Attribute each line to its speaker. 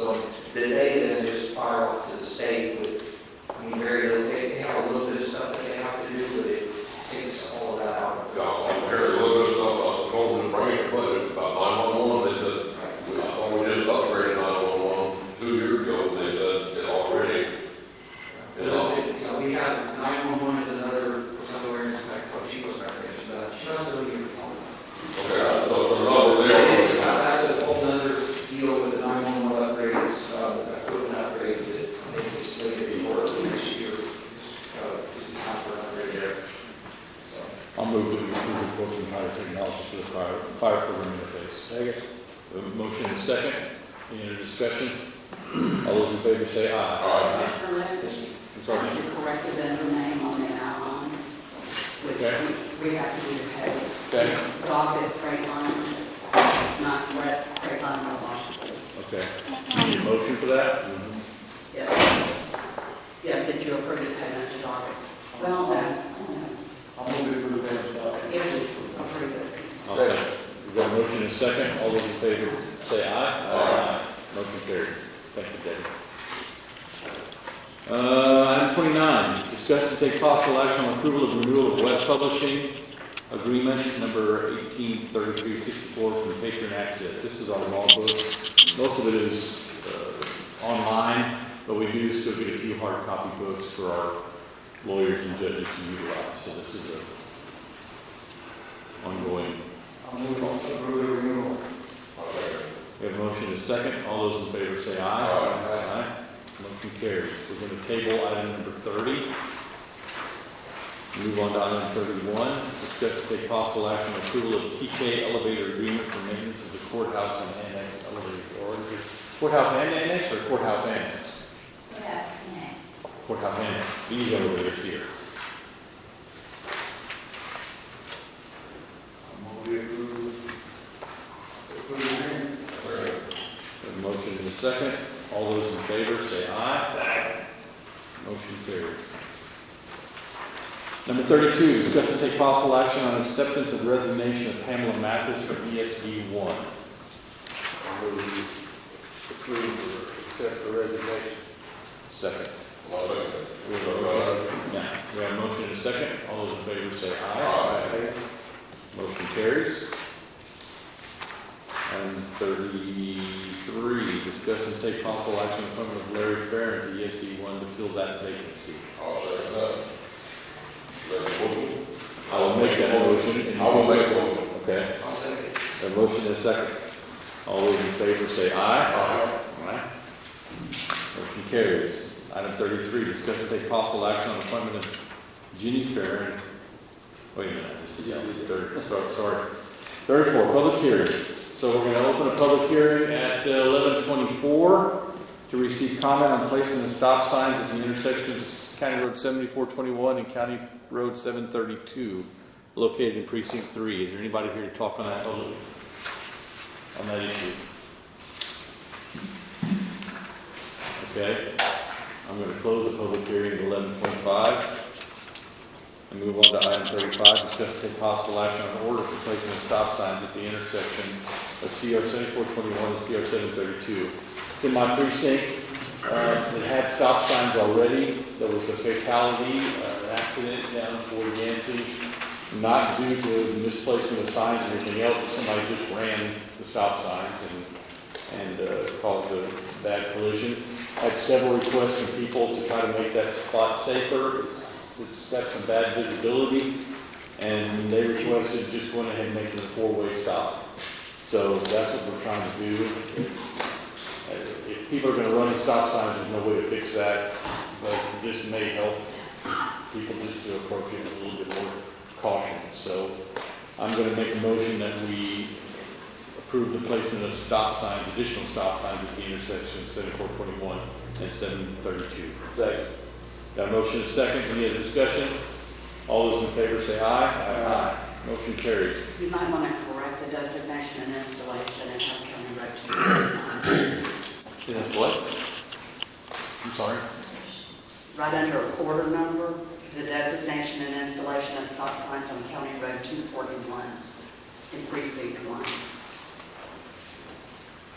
Speaker 1: that they then just fire off to the state with, I mean, very little, they they have a little bit of stuff that they have to do, but it takes all of that out.
Speaker 2: Y'all, I'm hearing a little bit of stuff, I was told in the brain, but about nine-one-one, they said, we, I thought we just upgraded nine-one-one two years ago, and they said it already.
Speaker 1: You know, we have, nine-one-one is another, somewhere in the back, but oh, she goes back there, she does, she doesn't really get involved.
Speaker 2: Okay, so it's another
Speaker 1: That
Speaker 2: there.
Speaker 1: is, that's a whole nother deal with the nine-one-one upgrades, uh, equipment upgrades that maybe the city or next year, uh, is not for an upgrade there. So,
Speaker 3: I'll move to approve the quote from Higher Technologies for the fire, fire program interface. Second. motion is second. Any other discussion? All those in favor say aye.
Speaker 2: Aye.
Speaker 4: Commissioner Lynch,
Speaker 3: I'm sorry.
Speaker 4: you corrected the other name on the outline,
Speaker 3: Okay.
Speaker 4: which we- we have to do the pay.
Speaker 3: Okay,
Speaker 4: But I'll get freight line, not red, freight line, no loss.
Speaker 3: okay. You Need a motion for that?
Speaker 4: Yes. Yes, that you approved the payment to Doggett. Well, no, no,
Speaker 5: I'm going to approve that as well.
Speaker 4: it was approved. it.
Speaker 3: I'll second. We've got a motion and second. All those in favor say aye.
Speaker 2: Aye.
Speaker 3: Motion carried. Thank you, David. Uh, item twenty-nine, discuss and take possible action on approval of renewal of web publishing agreement number eighteen thirty-three sixty-four from Patron Access. This is our law book. Most of it is, uh, online, but we do still get a few hard copy books for our lawyers and judges to utilize. So this is a ongoing
Speaker 5: I'm going to approve the renewal.
Speaker 3: we have a motion and a second. All those in favor say aye.
Speaker 2: Aye.
Speaker 3: Aye. Motion carries. We're going to table item number 30. Move on to item 31. Discuss and take possible action on approval of TK elevator agreement for maintenance of the courthouse and annex elevator. Or is it courthouse and annex or courthouse annex?
Speaker 4: Yes, next.
Speaker 3: Courthouse annex. These elevators here.
Speaker 5: I'm going to approve. Approve the renewal.
Speaker 3: We have a motion and a second. All those in favor say aye. Motion carries. Number thirty-two, discuss and take possible action on acceptance of resignation of Pamela Mathis from ESB one.
Speaker 6: I move to approve or accept the resignation.
Speaker 3: Second.
Speaker 2: Love it.
Speaker 3: We have a- Now, we have a motion and a second. All those in favor say aye.
Speaker 2: Aye.
Speaker 3: Motion carries. Item thirty-three, discuss and take possible action on appointment of Larry Farren to ESB one to fill that vacancy.
Speaker 2: I'll second that. That's a motion.
Speaker 3: I will make that motion.
Speaker 2: I will make one.
Speaker 3: Okay,
Speaker 1: I'll second it.
Speaker 3: a motion and a second. All those in favor say aye.
Speaker 2: Aye.
Speaker 3: Aye. Motion carries. Item thirty-three, discuss and take possible action on appointment of Jeannie Farren. Wait a minute, I just, yeah, thirty, so- sorry. Thirty-four, public hearing. So we're gonna open a public hearing at uh, eleven twenty-four to receive comment on placement of stop signs at the intersection of County Road seventy-four twenty-one and County Road seven thirty-two, located in precinct three. Is there anybody here to talk on that, on that issue? Okay, I'm gonna close the public hearing at eleven twenty-five. And move on to item thirty-five, discuss and take possible action on order for placement of stop signs at the intersection of CR seventy-four twenty-one and CR seven thirty-two. It's in my precinct, uh, it had stop signs already, there was a fatality, uh, an accident down toward Yancey, not due to misplacement of signs or anything else, but somebody just ran the stop signs and, and, uh, caused a bad collision had several requests from people to try to make that spot safer. It's, it's got some bad visibility, and they requested just went ahead and make it a four-way stop. So that's what we're trying to do. Uh, If people are gonna run the stop signs, there's no way to fix that, but this may help people just to approach it with a little bit more caution. So I'm gonna make a motion that we approve the placement of stop signs, additional stop signs at the intersection of seventy-four twenty-one and seven thirty-two. Second. Got a motion and a second, any other discussion? All those in favor say aye. Aye. Motion carries.
Speaker 4: You might want to correct the designation and installation and have County Road to be on.
Speaker 3: Yes, what? I'm sorry?
Speaker 4: Right under a order number, the designation and installation of stop signs on County Road 241 in precinct one.